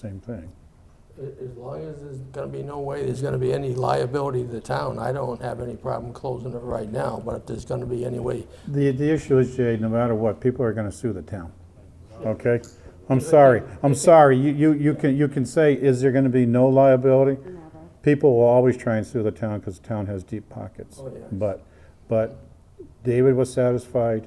same thing. A- As long as there's gonna be no way there's gonna be any liability to the town, I don't have any problem closing it right now, but if there's gonna be any way. The, the issue is, Jay, no matter what, people are gonna sue the town, okay? I'm sorry, I'm sorry, you, you, you can, you can say, is there gonna be no liability? People will always try and sue the town, because the town has deep pockets. Oh, yeah. But, but David was satisfied,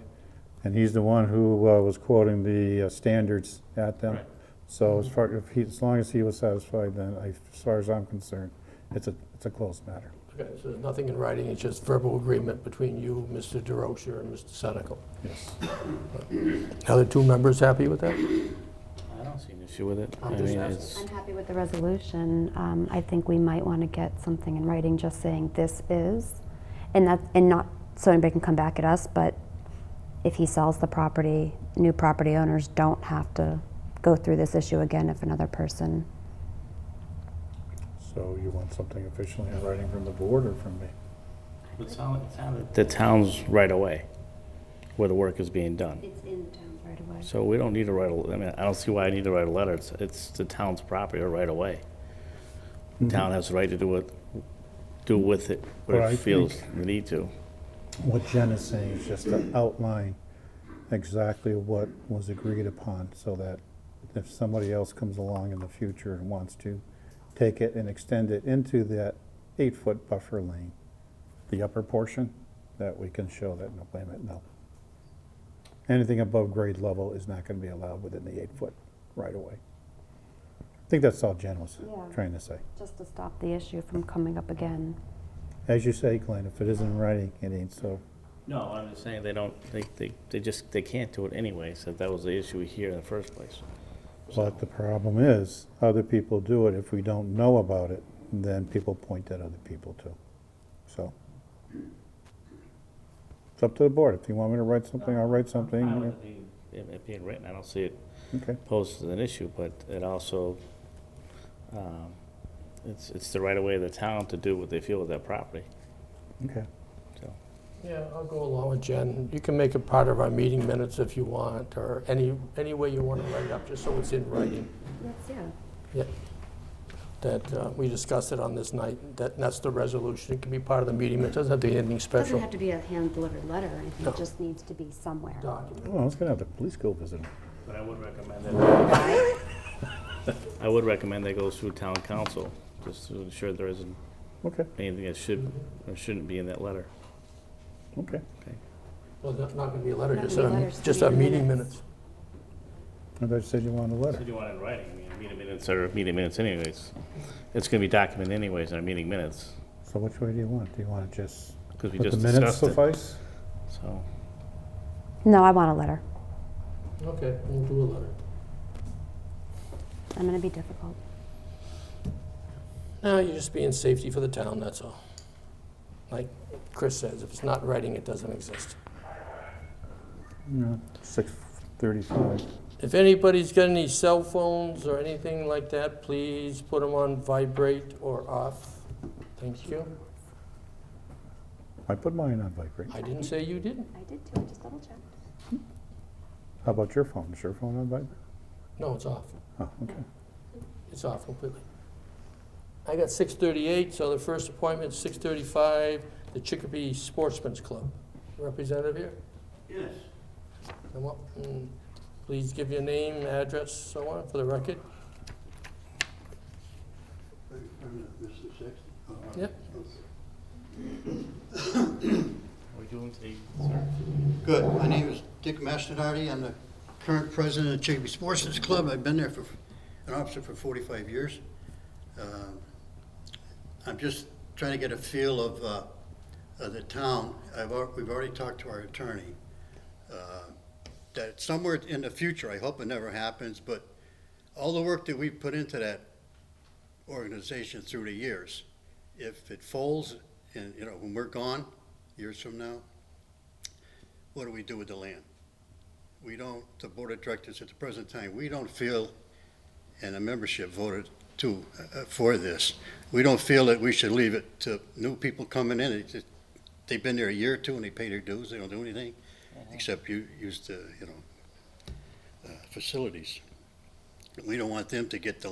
and he's the one who uh, was quoting the uh, standards at them. Right. So as far, if he, as long as he was satisfied, then I, as far as I'm concerned, it's a, it's a closed matter. Okay, so there's nothing in writing, it's just verbal agreement between you, Mr. DeRosa, and Mr. Senical. Yes. Are the two members happy with that? I don't see an issue with it. I just mean, asking. it's, I'm happy with the resolution. Um, I think we might want to get something in writing just saying this is, and that, and not, so anybody can come back at us, but if he sells the property, new property owners don't have to go through this issue again if another person. So you want something officially in writing from the board or from me? it sounded, it sounded. The town's right away, where the work is being done. It's in the town right away. So we don't need to write a, I mean, I don't see why I need to write a letter. It's, it's the town's property right away. The town has the right to do what, do with it what Well, I it feels the need to. What Jen is saying is just to outline exactly what was agreed upon, so that if somebody else comes along in the future and wants to take it and extend it into that eight-foot buffer lane, the upper portion, that we can show that, no, wait a minute, no. Anything above grade level is not gonna be allowed within the eight-foot right away. I think that's all Jen was Yeah. trying to say. Just to stop the issue from coming up again. As you say, Glenn, if it isn't in writing, it ain't so. No, I'm just saying they don't, they, they, they just, they can't do it anyway, so that was the issue here in the first place. But the problem is, other people do it. If we don't know about it, then people point at other people too. So. It's up to the board. If you want me to write something, I'll write something. It it being written, I don't see it Okay, posed as an issue, but it also, um, it's, it's the right of way of the town to do what they feel with their property, okay. so. Yeah, I'll go along with Jen. You can make it part of our meeting minutes if you want, or any, any way you wanna write it up, just so it's in writing. Yes, yeah. that uh, we discussed it on this night, that that's the resolution, it can be part of the meeting, it doesn't have to be anything Doesn't special. have to be a hand-delivered letter or anything, No. it just needs to be somewhere. Document. Well, Oh, I was gonna have the police go visit him. But I would recommend that. I would recommend that goes through town council, just to ensure there isn't Okay, anything that should, or shouldn't be in that letter. okay. Well, not not gonna be a letter, Not just gonna be a, letters, just a meeting meeting minutes. minutes. I thought you said you wanted a letter. Did you want it in writing? I mean, meeting minutes are meeting minutes anyways. It's gonna be documented anyways in our meeting minutes, So which way do you want? Do you want to just because we let the just minutes discussed it, suffice? so. No, I want a letter. Okay, we'll do a letter. I'm gonna be difficult. No, you're just being safety for the town, that's all. Like Chris says, if it's not writing, it doesn't exist. No, six thirty-five. If anybody's got any cell phones or anything like that, please put them on vibrate or off. Thank you. I put mine on vibrate. I didn't say you didn't. I did too, I just double-checked. How about your phone? Is your phone on vibrate? No, it's off. Oh, okay. It's off completely. I got 6:38, so the first appointment's 6:35, the Chicopee Sportsman's Club. Representative here? Yes, Come up and please give your name, address, so on, for the record. I- I'm not Mr. Sexton. Oh, I- Yep. okay. Are we doing the, Good, my name is Dick Masternardi, I'm the current president of Chicopee Sportsman's Club, I've been there for, an officer for forty-five years. Um, I'm just trying to get a feel of, uh, of the town, I've, al- we've already talked to our attorney. uh, That somewhere in the future, I hope it never happens, but all the work that we've put into that organization through the years, if it folds, and, you know, when we're gone, years from now, what do we do with the land? We don't, the board of directors at the present time, we don't feel, and the membership voted to, uh, uh, for this, we don't feel that we should leave it to new people coming in. It's just- They've been there a year or two and they pay their dues, they don't do anything, except you, use the, you know, uh, facilities. We don't want them to get the